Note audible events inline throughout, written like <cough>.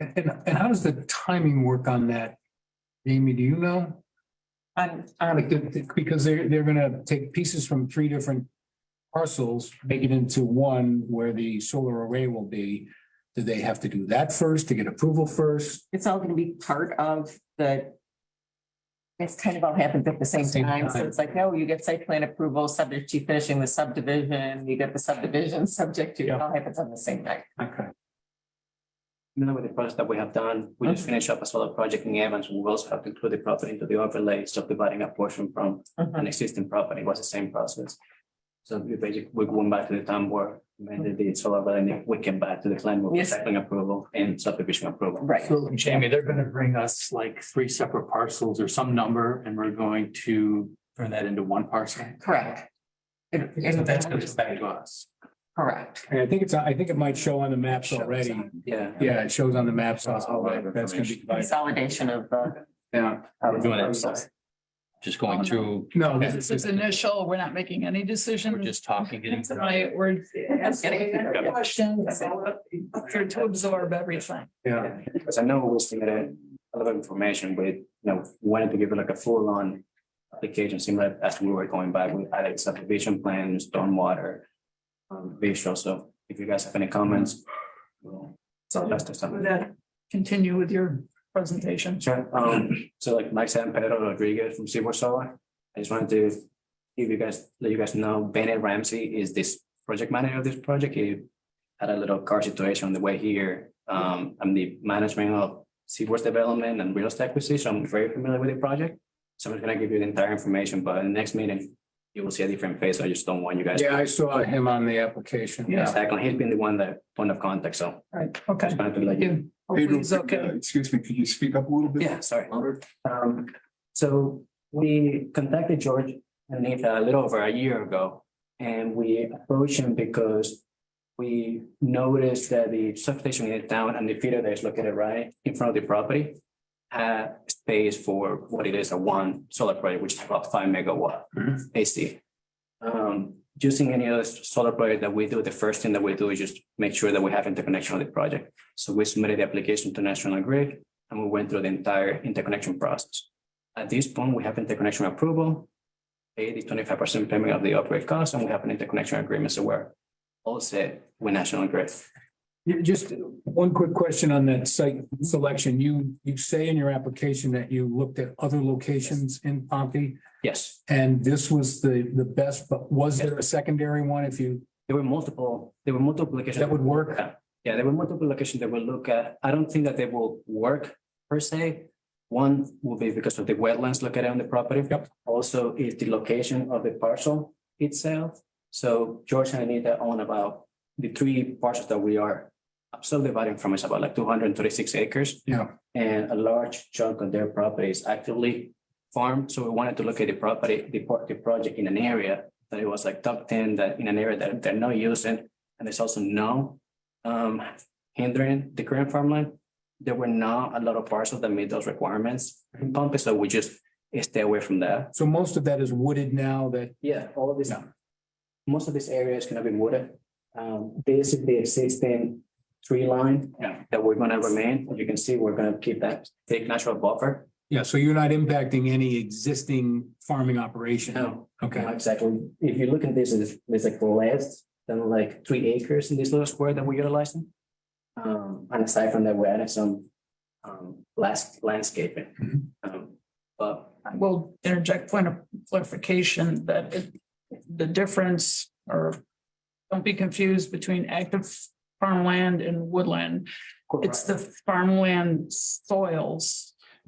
And, and- and how does the timing work on that? Amy, do you know? On, Like, on, the- the- because they're, they're gonna take pieces from three different parcels, make it into one where the solar array will be. Do they have to do that first to get approval first? it's all gonna be part of the. It's kind of all happened at the same Same time, so time. it's like, no, you get site plan approval, subject to finishing the subdivision, you get the subdivision, <laughs> subject to, it all happens on the same night. Okay. Now with the projects that we have done, we just finished up a solar project in Evans. We also have to include the property into the overlay, subdividing a portion from Mm-hmm. an existing property It was the same process. So we basically, we went back to the town board, amended the solar, overlay, and then we came back to the plan with Yes. cycling approval and subdivision approval. Right, So Jamie, they're gonna bring us like three separate parcels or some number and we're going to turn that into one parcel. correct. It- So that's gonna it- come back to us. Correct. And I think it's, I think it might show on the maps Shows already. on- Yeah. Yeah, it shows on the maps. also, Right, but That's gonna be divided. Consolidation of the. Yeah. We're doing it. Just going through, No, Okay. this This is is, initial, we're not making any decision. we're just talking, getting. That's why we're asking Yeah. questions, here to absorb everything. yeah. Because I know we submitted a lot of information, but you know, wanted to give it like a full on application, seemed like as we were going by, we had a subdivision plan, stormwater. Um, visual, so if you guys have any comments. we'll- So That's just with something. that, continue with your presentation. Sure, um, so like Mike San Pedro Rodriguez from Seaboard Solar, I just wanted to give you guys, let you guys know Bennett Ramsey is this project manager of this project. He had a little car situation on the way here. Um, I'm the management of Seaboard's development and real estate acquisition. I'm very familiar with the project. So I'm just gonna give you the entire information, but in the next meeting, you will see a different face. I just don't want you guys. Yeah, I saw him on the application. Exactly. He's been the one that point of contact, so Right, I okay. just wanted to let you. You- Pedro, Hopefully it's could, uh, okay. Excuse me, could you speak up a little bit? Yeah, sorry. Um, so we contacted George and Nathan a little over a year ago. And we approached him because we noticed that the substation in the town and the feeder that is located right in front of the property. Had space for what it is, a one solar project, which is about five megawatt Mhm. AC. Um, using any other solar project that we do, the first thing that we do is just make sure that we have interconnection with the project. So we submitted the application to National Grid and we went through the entire interconnection process. At this point, we have interconnection approval, pay the twenty-five percent payment of the upgrade cost, and we have an interconnection agreement, so we're all set with National Grid. Yeah, Just one quick question on that site selection. You, you say in your application that you looked at other locations in Pompey Yes, and this was the, the best, but was there a secondary one if you, there were multiple, there were multiple locations. that would work? Yeah, there were multiple locations that we'll look at. I don't think that they will work per se. One will be because of the wetlands located on the property. Yep. Also is the location of the parcel itself. So George and Anita own about the three parcels that we are subdividing from is about like two hundred and thirty-six acres. Yeah. And a large chunk of their property is actively farmed. So we wanted to look at the property, the, pro- the project in an area that it was like tucked in, that in an area that they're not using. And there's also no um, hindering the current farmland. There were not a lot of parcels that meet those requirements in Pompey, so we just stay away from that. So most of that is wooded now that, Yeah, all of this. Yeah. Most of this area is gonna be wooded. Um, this is the existing tree line. Yeah. That we're gonna remain. As you can see, we're gonna keep that thick natural buffer. yeah, so you're not impacting any existing farming operation? No, Okay, exactly. If you look at this, it's, it's like less than like three acres in this little square that we're utilizing. Um, and aside from that, we added some um last Mm-hmm. landscaping. Um, but I will interject point of clarification that it- the difference or don't be confused between active farmland and woodland. It's the farmland soils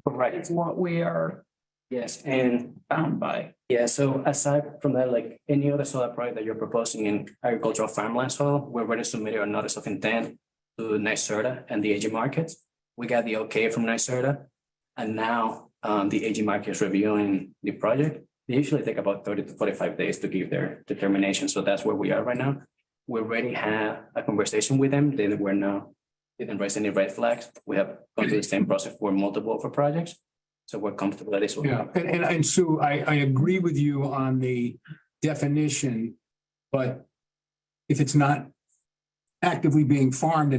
Right, is what we are yes, and bound by. yeah, so aside from that, like any other solar project that you're proposing in agricultural farmland soil, we're ready to submit our notice of intent to NYSERDA and the AG markets. We got the okay from NYSERDA. And now um the AG market is reviewing the project. They usually take about thirty to forty-five days to give their determination, so that's where we are right now. We already had a conversation with them, they were now, didn't raise any red flags. We have gone through the same process for multiple of our projects. So we're comfortable that this will. yeah, and, and, and Sue, I, I agree with you on the definition, but if it's not actively being farmed